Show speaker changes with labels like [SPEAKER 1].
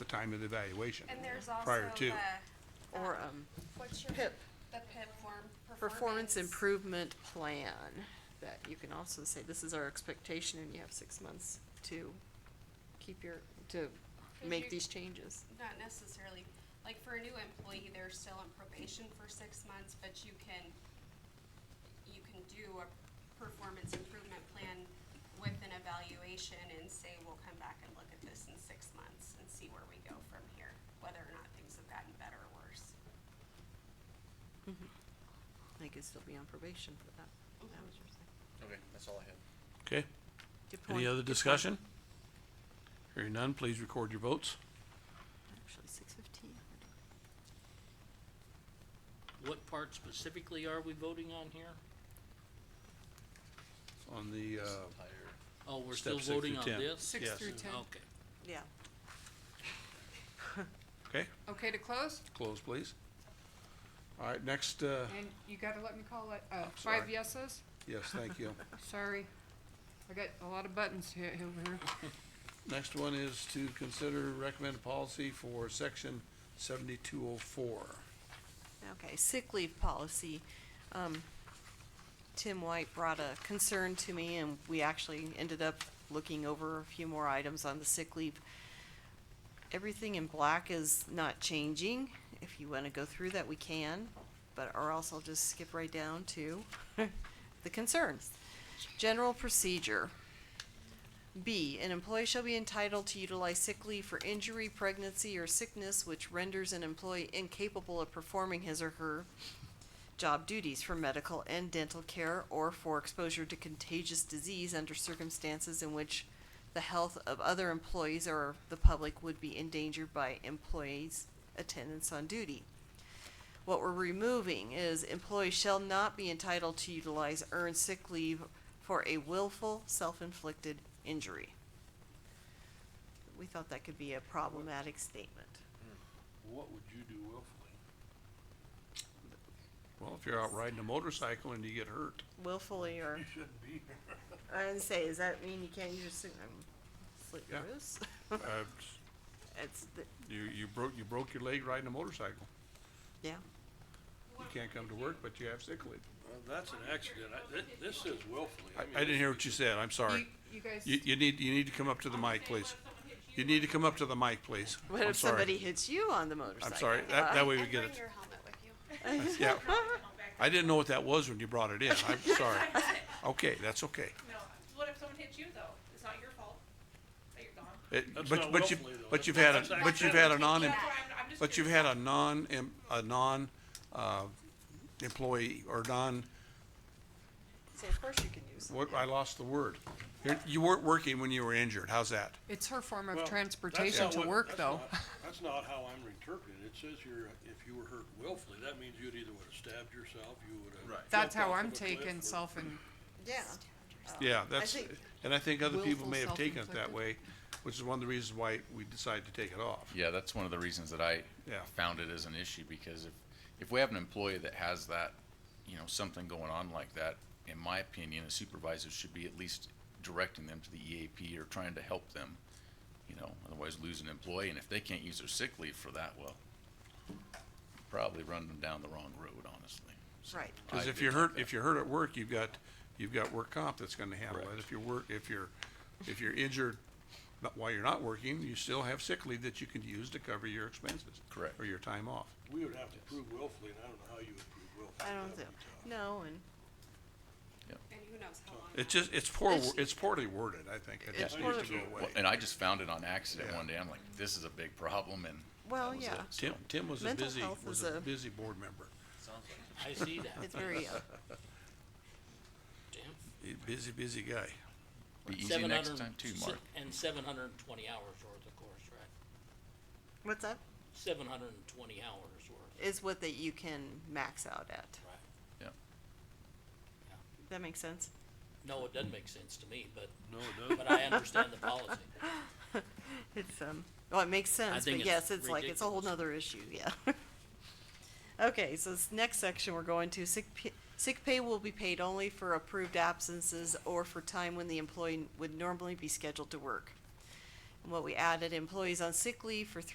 [SPEAKER 1] time of the evaluation,
[SPEAKER 2] And there's also
[SPEAKER 1] prior to.
[SPEAKER 2] the,
[SPEAKER 3] Or, um,
[SPEAKER 2] what's your,
[SPEAKER 3] PIP.
[SPEAKER 2] the PIP form, performance.
[SPEAKER 3] performance improvement plan, that you can also say, this is our expectation, and you have six months to keep your, to
[SPEAKER 2] you-
[SPEAKER 3] make these changes.
[SPEAKER 2] Not necessarily, like for a new employee, they're still on probation for six months, but you can, you can do a performance improvement plan with an evaluation and say, we'll come back and look at this in six months and see where we go from here, whether or not things have gotten better or worse.
[SPEAKER 3] They could still be on probation for that. That was your thing.
[SPEAKER 4] Okay, that's all I had.
[SPEAKER 1] Okay,
[SPEAKER 3] Good point.
[SPEAKER 1] any other
[SPEAKER 3] Good point.
[SPEAKER 1] discussion? Hearing none, please record your votes.
[SPEAKER 3] Actually, six fifteen.
[SPEAKER 5] What part specifically are we voting on here?
[SPEAKER 1] On the, uh,
[SPEAKER 4] Entire-
[SPEAKER 5] Oh, we're
[SPEAKER 1] Step
[SPEAKER 5] still
[SPEAKER 1] six through
[SPEAKER 5] voting on
[SPEAKER 1] 10.
[SPEAKER 5] this?
[SPEAKER 6] Six
[SPEAKER 1] Yes.
[SPEAKER 6] through ten.
[SPEAKER 5] Okay.
[SPEAKER 3] Yeah.
[SPEAKER 1] okay,
[SPEAKER 6] Okay to close,
[SPEAKER 1] close please. All right, next, uh,
[SPEAKER 6] and you gotta let me call it, uh,
[SPEAKER 1] sorry.
[SPEAKER 6] five yeses,
[SPEAKER 1] yes, thank you.
[SPEAKER 6] sorry. I got a lot of buttons here, over here.
[SPEAKER 1] Next one is to consider recommended policy for section seventy-two oh four.
[SPEAKER 3] Okay, sick leave policy. Um, Tim White brought a concern to me and we actually ended up looking over a few more items on the sick leave. Everything in black is not changing. If you wanna go through that, we can, but, or else I'll just skip right down to the concerns. General procedure. B, an employee shall be entitled to utilize sick leave for injury, pregnancy, or sickness which renders an employee incapable of performing his or her job duties for medical and dental care or for exposure to contagious disease under circumstances in which the health of other employees or the public would be endangered by employees' attendance on duty. What we're removing is employees shall not be entitled to utilize earned sick leave for a willful, self-inflicted injury. We thought that could be a problematic statement.
[SPEAKER 4] What would you do willfully?
[SPEAKER 1] Well, if you're out riding a motorcycle and you get hurt,
[SPEAKER 3] Willfully or,
[SPEAKER 4] shouldn't be here.
[SPEAKER 3] I didn't say, does that mean you can't use your sick, um, slit your
[SPEAKER 1] Yeah.
[SPEAKER 3] wrists?
[SPEAKER 1] uh,
[SPEAKER 3] It's, the-
[SPEAKER 1] you, you broke, you broke your leg riding a motorcycle.
[SPEAKER 3] yeah,
[SPEAKER 1] You can't come to work, but you have sick leave.
[SPEAKER 7] Well, that's an accident. I, thi- this is willfully.
[SPEAKER 1] I,
[SPEAKER 7] mean,
[SPEAKER 1] I didn't hear what you said, I'm sorry.
[SPEAKER 6] You, you guys,
[SPEAKER 1] You, you need, you need to come up to the mic, please. You need to come up to the mic, please.
[SPEAKER 3] what
[SPEAKER 1] I'm
[SPEAKER 3] if
[SPEAKER 1] sorry.
[SPEAKER 3] somebody hits you on the motorcycle?
[SPEAKER 1] I'm sorry, that, that way we
[SPEAKER 2] And
[SPEAKER 1] get
[SPEAKER 2] bring
[SPEAKER 1] it.
[SPEAKER 2] your helmet with you.
[SPEAKER 1] Yeah. I didn't know what that was when you brought it in, I'm sorry. Okay, that's okay.
[SPEAKER 8] No, what if someone hits you though? It's not your fault that you're gone.
[SPEAKER 1] It-
[SPEAKER 7] That's
[SPEAKER 1] Uh, But,
[SPEAKER 7] not
[SPEAKER 1] but you,
[SPEAKER 7] willfully, though.
[SPEAKER 1] but you've had,
[SPEAKER 7] That's
[SPEAKER 1] a
[SPEAKER 7] not
[SPEAKER 1] but you've had a non,
[SPEAKER 8] That's why I'm, I'm just.
[SPEAKER 1] but you've
[SPEAKER 8] curious.
[SPEAKER 1] had a non, em- a non, uh, employee or non,
[SPEAKER 3] So of course you can use it.
[SPEAKER 1] what, I lost the word. You're- You weren't working when you were injured, how's that?
[SPEAKER 6] it's her form
[SPEAKER 7] Well,
[SPEAKER 6] of
[SPEAKER 7] that's
[SPEAKER 6] transportation
[SPEAKER 7] not
[SPEAKER 6] to
[SPEAKER 7] what-
[SPEAKER 6] work
[SPEAKER 7] that's
[SPEAKER 6] though.
[SPEAKER 7] not- That's not how I'm interpreting it. It says you're, if you were hurt willfully, that means you'd either would have stabbed yourself, you would have.
[SPEAKER 1] Right.
[SPEAKER 7] jumped
[SPEAKER 6] That's how
[SPEAKER 7] off
[SPEAKER 6] I'm
[SPEAKER 7] of a cliff
[SPEAKER 6] taking
[SPEAKER 7] or-
[SPEAKER 6] self and,
[SPEAKER 3] Yeah.
[SPEAKER 1] Yeah, that's,
[SPEAKER 3] think-
[SPEAKER 1] and I think other people
[SPEAKER 6] Willful
[SPEAKER 1] may have taken it that
[SPEAKER 6] self-inflicted.
[SPEAKER 1] way, which is one of the reasons why we decided to take it off.
[SPEAKER 4] Yeah, that's one of the reasons that I
[SPEAKER 1] Yeah.
[SPEAKER 4] found it as an issue, because if, if we have an employee that has that, you know, something going on like that, in my opinion, a supervisor should be at least directing them to the EAP or trying to help them, you know, otherwise lose an employee, and if they can't use their sick leave for that, well, probably run them down the wrong road, honestly. So
[SPEAKER 3] Right.
[SPEAKER 4] I
[SPEAKER 1] Cause if
[SPEAKER 4] did
[SPEAKER 1] you're
[SPEAKER 4] like
[SPEAKER 1] hurt,
[SPEAKER 4] that.
[SPEAKER 1] if you're hurt at work, you've got, you've got work comp that's gonna handle it.
[SPEAKER 4] Correct.
[SPEAKER 1] If you're work, if you're, if you're injured not- while you're not working, you still have sick leave that you can use to cover your expenses.
[SPEAKER 4] Correct.
[SPEAKER 1] Or your time off.
[SPEAKER 7] We would have to prove willfully, and I don't know how you would prove willfully.
[SPEAKER 3] I don't
[SPEAKER 7] That
[SPEAKER 3] think,
[SPEAKER 7] would be tough.
[SPEAKER 3] no, and
[SPEAKER 2] And who knows how long.
[SPEAKER 1] It's just, it's poor,
[SPEAKER 3] It's-
[SPEAKER 1] it's poorly worded, I think. It
[SPEAKER 3] It's
[SPEAKER 1] just needs to
[SPEAKER 7] poorly-
[SPEAKER 1] go
[SPEAKER 4] Well,
[SPEAKER 1] away.
[SPEAKER 4] and I just found it on accident
[SPEAKER 1] Yeah.
[SPEAKER 4] one day. I'm like, this is a big problem and. that
[SPEAKER 3] Well,
[SPEAKER 4] was
[SPEAKER 3] yeah.
[SPEAKER 4] it. So-
[SPEAKER 1] Tim, Tim was a
[SPEAKER 3] Mental
[SPEAKER 1] busy,
[SPEAKER 3] health
[SPEAKER 1] was
[SPEAKER 3] is
[SPEAKER 1] a
[SPEAKER 3] a-
[SPEAKER 1] busy board member.
[SPEAKER 5] I see that,
[SPEAKER 3] it's very, uh,
[SPEAKER 5] Tim.
[SPEAKER 1] He's a busy, busy guy.
[SPEAKER 4] Be easy next time too,
[SPEAKER 5] 700
[SPEAKER 4] Mark.
[SPEAKER 5] And seven hundred and twenty hours worth, of course, right?
[SPEAKER 3] what's that?
[SPEAKER 5] Seven hundred and twenty hours worth,
[SPEAKER 3] Is what that you can max out at.
[SPEAKER 5] right?
[SPEAKER 4] Yeah.
[SPEAKER 3] That makes sense?
[SPEAKER 5] No, it doesn't make sense to me, but,
[SPEAKER 7] No, it doesn't.
[SPEAKER 5] but I understand the policy.
[SPEAKER 3] It's, um, well, it makes sense,
[SPEAKER 5] think
[SPEAKER 3] but
[SPEAKER 5] it's
[SPEAKER 3] yes, it's like, it's a whole
[SPEAKER 5] ridiculous.
[SPEAKER 3] nother issue, yeah. Okay, so this next section we're going to, sick pay, sick pay will be paid only for approved absences or for time when the employee would normally be scheduled to work. And what we added, employees on sick leave for three